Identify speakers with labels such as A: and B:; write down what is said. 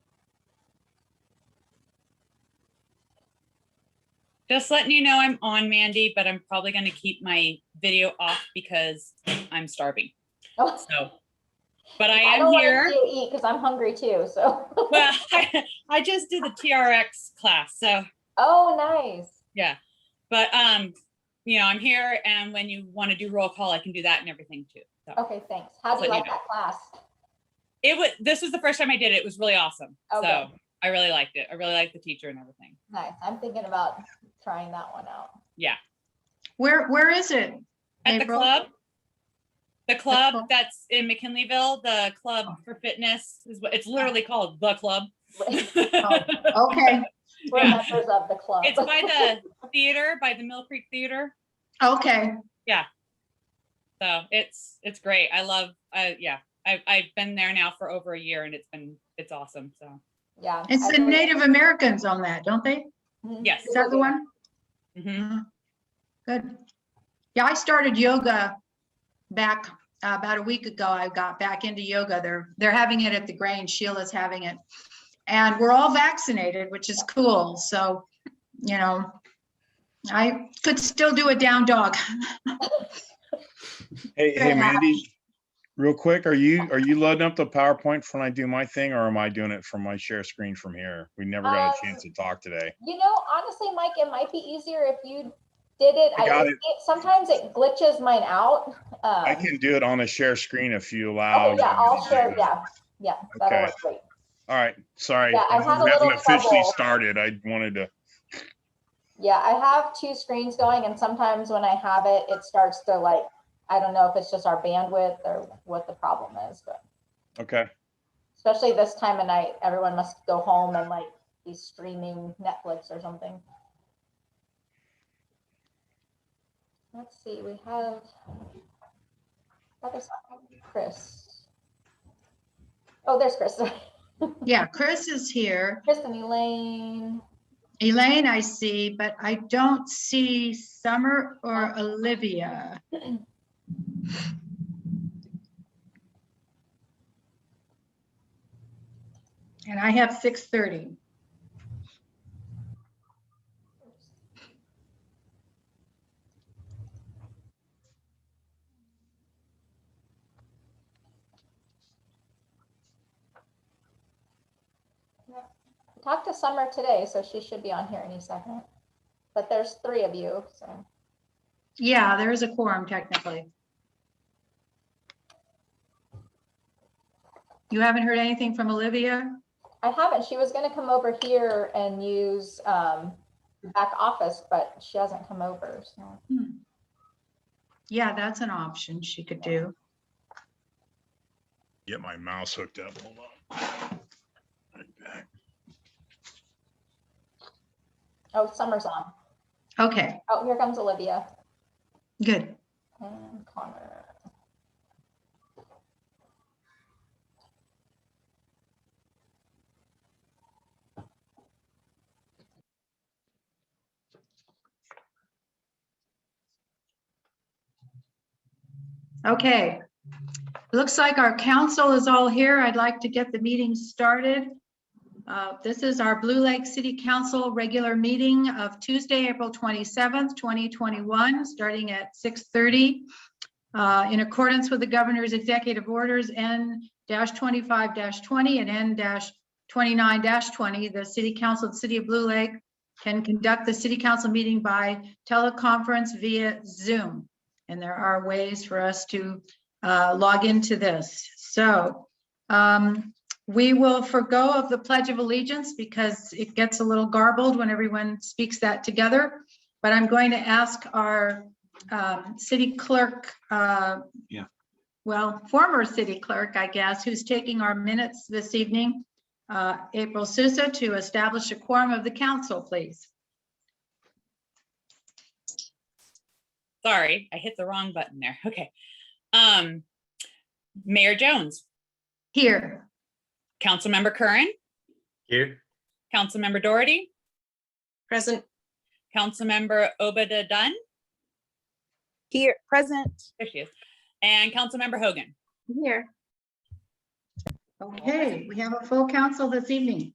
A: Just letting you know I'm on Mandy, but I'm probably gonna keep my video off because I'm starving.
B: Oh.
A: So, but I
B: I
A: am
B: don't want
A: here.
B: to eat because I'm hungry too, so.
A: Well, I, I just did the TRX class, so
B: Oh, nice.
A: yeah. But um, you know, I'm here and when you want to do roll call, I can do that and everything too. So
B: Okay, thanks. How do you
A: Let me
B: like that class?
A: it was this was the first time I did it. It was really awesome. So
B: Okay.
A: I really liked it. I really liked the teacher and everything.
B: Nice. I'm thinking about trying that one out.
C: Where, where is it?
A: At the
C: April?
A: club. The club
C: club. Oh.
A: that's in McKinleyville, the club for fitness is what it's literally called the club.
C: Oh.
A: it's
C: Okay,
B: We're
A: Yeah.
B: members of the club.
A: by the theater, by the Mill Creek Theater.
C: okay.
A: So it's it's great. I love uh yeah. I I've been there now for over a year and it's been it's awesome. So
B: Yeah.
C: It's
B: I
C: the
B: really-
C: Native Americans on that, don't they?
B: Mhm.
A: Yes.
C: Is that the one?
A: mhm.
C: Good. Yeah, I started yoga back uh, about a week ago. I got back into yoga. They're, they're having it at the Grange. Sheila's having it. And we're all vaccinated, which is cool. So, you know, I could still do a down dog.
D: Hey,
C: Very
D: hey, Mandy, real quick, are you, are you loading up the PowerPoint for when I do my thing or am I doing it from my share screen from here? We never
B: Um,
D: got a chance to talk today.
B: You know, honestly, Mike, it might be easier if you did it.
D: I got it.
B: Sometimes it glitches mine out.
D: I
B: um,
D: can do it on a share screen if you allow.
B: Okay, Oh, yeah, I'll
D: me to do
B: share,
D: that.
B: yeah, yeah, that'll
D: Okay.
B: work great.
D: All right, sorry.
B: Yeah, I
D: We
B: had a
D: haven't
B: little
D: Officially
B: trouble.
D: started. I wanted to,
B: Yeah, I have two screens going and sometimes when I have it, it starts to like, I don't know if it's just our bandwidth or what the problem is, but
D: okay,
B: especially this time of night, everyone must go home and like be streaming Netflix or something. Let's see, we have that is Chris. Oh, there's Chris.
C: Yeah, Chris is here.
B: Chris and Elaine.
C: Elaine, I see, but I don't see Summer or Olivia. And I have six thirty.
B: Talked to Summer today, so she should be on here any second. But there's three of you, so.
C: Yeah, there is a quorum technically. You haven't heard anything from Olivia?
B: I haven't. She was gonna come over here and use um back office, but she hasn't come over, so.
C: Yeah, that's an option she could do.
D: get my mouse hooked up. Hold on. Right back.
B: Oh, Summer's on.
C: Okay,
B: Oh, here comes Olivia
C: good.
B: and Connor.
C: Okay. Looks like our council is all here. I'd like to get the meeting started. Uh, This is our Blue Lake City Council regular meeting of Tuesday, April 27th, 2021, starting at 6:30. uh, In accordance with the governor's executive orders N-25-20 and N-29-20, the city council of the city of Blue Lake can conduct the city council meeting by teleconference via Zoom. And there are ways for us to uh, log into this. So um, we will forego of the Pledge of Allegiance because it gets a little garbled when everyone speaks that together. But I'm going to ask our um, city clerk. Yeah. Well, former city clerk, I guess, who's taking our minutes this evening, uh, April Sousa, to establish a quorum of the council, please.
A: Sorry, I hit the wrong button there. Okay. Um, Mayor Jones,
C: Here.
A: Councilmember Curran,
E: Here.
A: Councilmember Doherty,
F: Present.
A: Councilmember Obada Dunn,
F: Here, present.
A: there she is, and Councilmember Hogan.
F: Here.
C: Okay, we have a full council this evening.